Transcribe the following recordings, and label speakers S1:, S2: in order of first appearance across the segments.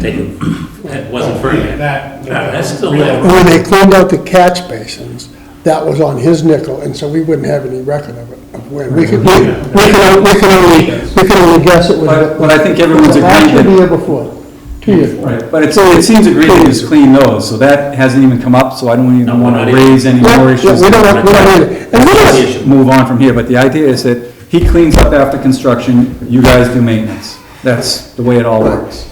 S1: they, that wasn't Ferdinand.
S2: That-
S1: That's still
S2: Real-
S1: there.
S3: When they cleaned out the catch basins, that was on his nickel, and so we wouldn't have any record of it, of when. We could, we we can, we can only, we can only guess it was.
S4: But- but I think everyone's
S3: Last year,
S4: agreed that-
S3: the year before, two years. before.
S4: Right, but it's, it seems agreed to just clean those, so that hasn't even come up, so I don't
S1: No,
S4: even
S1: we're
S4: want
S1: not
S4: to
S1: even-
S4: raise any
S3: Yeah,
S4: more
S3: yeah,
S4: issues.
S3: we don't- we don't need it. And we
S1: That's the
S3: don't-
S1: issue.
S4: Move on from here, but the idea is that he cleans up after construction, you guys do maintenance. That's the way it all works.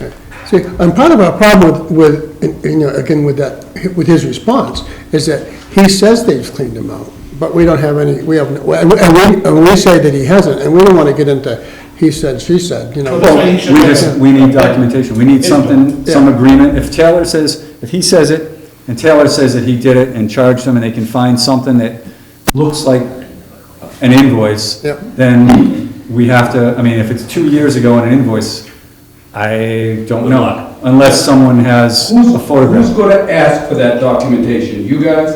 S3: See, and part of our problem with, with, you know, again, with that, with his response, is that he says they've cleaned them out, but we don't have any, we have, no- and we, and we say that he hasn't, and we don't wanna get into he said, she said, you know.
S2: Well,
S4: We just, we need documentation, we need something, some agreement. If Taylor says, if he says it, and Taylor says that he did it and charged him, and they can find something that looks like an invoice,
S3: Yep.
S4: then we have to, I mean, if it's two years ago on an invoice, I don't
S1: Good luck.
S4: know, unless someone has
S5: Who's,
S4: a
S5: who's
S4: photograph.
S5: gonna ask for that documentation? You guys?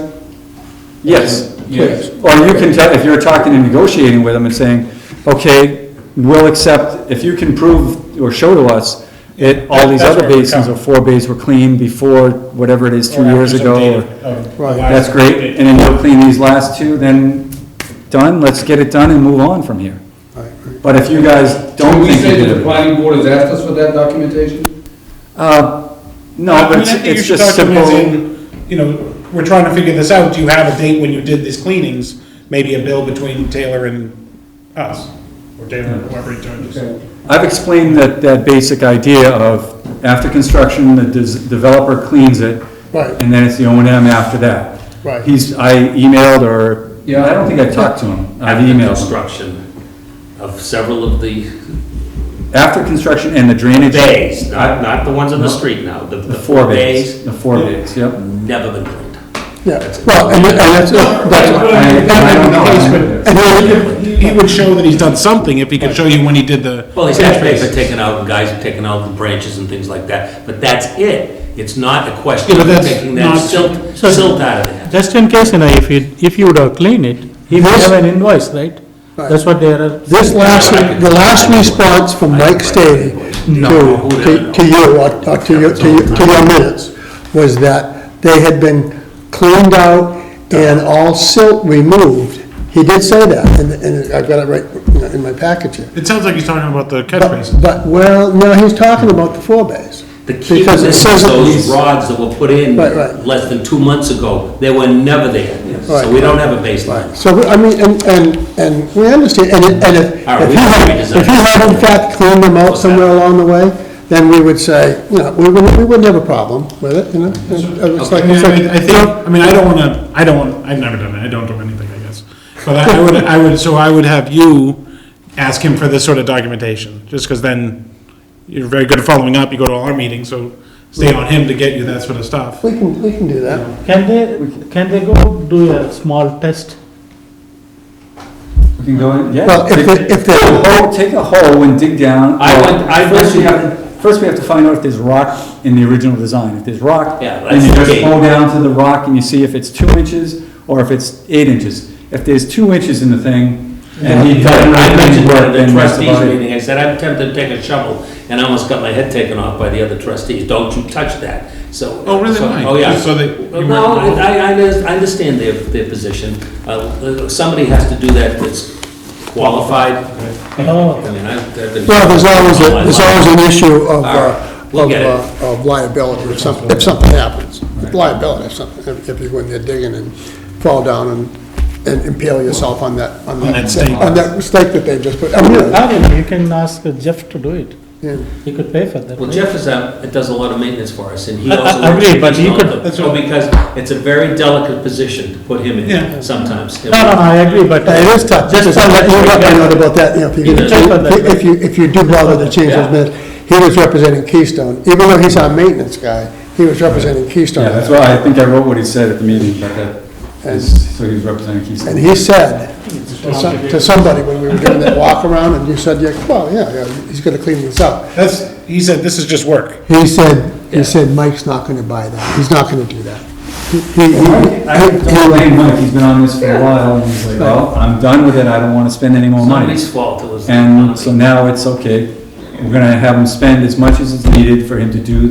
S4: Yes.
S5: Yes.
S4: Or you can tell, if you're talking and negotiating with them and saying, okay, we'll accept, if you can prove or show to us it, all these
S2: That's
S4: other
S2: where we
S4: basins
S2: come.
S4: or four bays were clean before whatever it is, two
S2: Or
S4: years
S2: after some
S4: ago.
S2: data Oh,
S4: or-
S2: of-
S3: Right.
S4: That's great, and then you'll clean these last two, then done, let's get it done and move on from here. But if you guys
S5: Can
S4: don't
S5: we
S4: think you
S5: say that
S4: did
S5: the
S4: it,
S5: planning board has asked us for that documentation?
S4: uh,
S2: I
S4: no,
S2: mean, I
S4: but it's,
S2: think you
S4: it's
S2: should
S4: just
S2: document
S4: simple.
S2: in, You know, we're trying to figure this out, do you have a date when you did these cleanings? Maybe a bill between Taylor and us, or Taylor, and whoever he charges.
S4: I've explained that, that basic idea of after construction, the des- developer cleans it.
S3: Right.
S4: And then it's the O and M after that.
S3: Right.
S4: He's, I emailed or,
S5: Yeah.
S4: I don't think I talked to him. I've
S1: After
S4: emailed him.
S1: construction of several of the
S4: After construction and the drainage.
S1: bays, not, not the ones on the street now, the,
S4: The
S1: the
S4: four bays, the four bays, yep.
S1: never been cleaned.
S3: Yeah, well, and, and that's, that's,
S4: I- I don't know.
S3: and then-
S2: He he would show that he's done something if he could show you when he did the.
S1: Well, these ash bays are
S2: Yeah,
S1: taken out, and guys have taken out the branches and things like that, but that's it. It's not a question
S2: Yeah,
S1: of
S2: but that's
S1: taking that
S2: not-
S1: silt,
S6: So-
S1: silt out of there.
S6: Just in case, you know, if you, if you would have cleaned it, if you
S3: Yes.
S6: have an invoice, right?
S3: Right.
S6: That's what they are.
S3: This last, the last response from Mike Stady to, to- to you, or or to your, to your- to your minutes, was that they had been cleaned out and all silt removed. He did say that, and, and I've got it right you know, in my package here.
S2: It sounds like he's talking about the catch
S3: But,
S2: basin.
S3: but, well, no, he's talking about the four bays.
S1: The key
S3: Because
S1: was
S3: it says that
S1: those
S3: he's-
S1: rods that were put in
S3: Right, right.
S1: less than two months ago, they were never there. So
S3: Right.
S1: we don't have a baseline.
S3: So, I mean, and, and, and we understand, and if, and if
S1: All right,
S3: if
S1: we
S3: you had,
S1: can redesign
S3: if you had in fact cleaned them out somewhere along the way, then we would say, you know, we wouldn't, we wouldn't have a problem with it, you know? It's like-
S2: I mean,
S3: it's
S2: I
S3: like-
S2: mean, I think, I mean, I don't wanna, I don't want, I've never done it, I don't do anything, I guess. But I I would, I would, so I would have you ask him for this sort of documentation, just because then you're very good at following up, you go to all our meetings, so stay on him to get you that sort of stuff.
S3: We can, we can do that.
S6: Can they, can they go do a small test?
S4: You can go in, yeah.
S3: Well, if
S4: Take-
S3: the- if the-
S4: take a hole- Take a hole and dig down.
S1: I went- I
S4: First we
S1: went-
S4: have, first we have to find out if there's rock in the original design. If there's rock,
S1: Yeah,
S4: then you
S1: that's the
S4: just
S1: key.
S4: pull down to the rock and you see if it's two inches or if it's eight inches. If there's two inches in the thing, and he doesn't
S1: I mentioned
S4: work,
S1: that at
S4: then
S1: the
S4: that's
S1: trustees
S4: about it.
S1: meeting, I said, I'm tempted to take a shovel, and I almost got my head taken off by the other trustees, don't you touch that, so.
S2: Oh, really?
S1: so-
S2: Why?
S1: Oh, yeah.
S2: Just so that you
S1: Well,
S2: weren't
S1: No,
S2: involved?
S1: I, I under- I understand their, their position, Uh, uh, somebody has to do that that's qualified.
S6: Oh.
S1: I mean, I've I've been.
S3: Well, there's always,
S1: all my
S3: a- there's
S1: life.
S3: always an issue of,
S1: All right,
S3: uh,
S1: we'll
S3: of,
S1: get it.
S3: uh, of liability if something, if something happens. Liability if something, if- if you go in there digging and fall down and, and impale yourself on that, on that.
S2: that stake.
S3: On that stake that they just put, I mean, you know,
S6: I mean, you can ask Jeff to do it.
S3: yeah.
S6: He could pay for that.
S1: Well,
S6: right?
S1: Jeff is out, it does a lot of maintenance for us, and he
S6: I- I-
S1: also.
S6: I agree,
S1: works
S6: but he
S1: on
S6: could-
S1: the-
S2: that's
S1: Well,
S2: what-
S1: because it's a very delicate position to put him
S2: Yeah.
S1: in sometimes.
S6: No, no, no, I agree, but.
S3: Yeah, It is tough,
S6: Just
S3: just
S6: for that.
S3: you let me know
S6: you
S3: about that, you know, if you,
S6: Just on that.
S3: if you, if you do bother to change
S1: Yeah.
S3: those minutes. He was representing Keystone, even though he's our maintenance guy, he was representing Keystone.
S4: Yeah, that's why I think I wrote what he said at the meeting, but that is, so he was representing Keystone.
S3: And he said to some- to somebody when we were doing that walk around, and you said, yeah, well, yeah, yeah, he's gonna clean this up.
S2: That's, he said, this is just work.
S3: He said, he said, Mike's not gonna buy that, he's not gonna do that. He- he- he-
S4: I don't blame Mike, he's been on this for a while, and he's like, well, I'm done with it, I don't wanna spend any more money.
S1: Somebody's fault, it was.
S4: And so now it's okay, we're gonna have him spend as much as is needed for him to do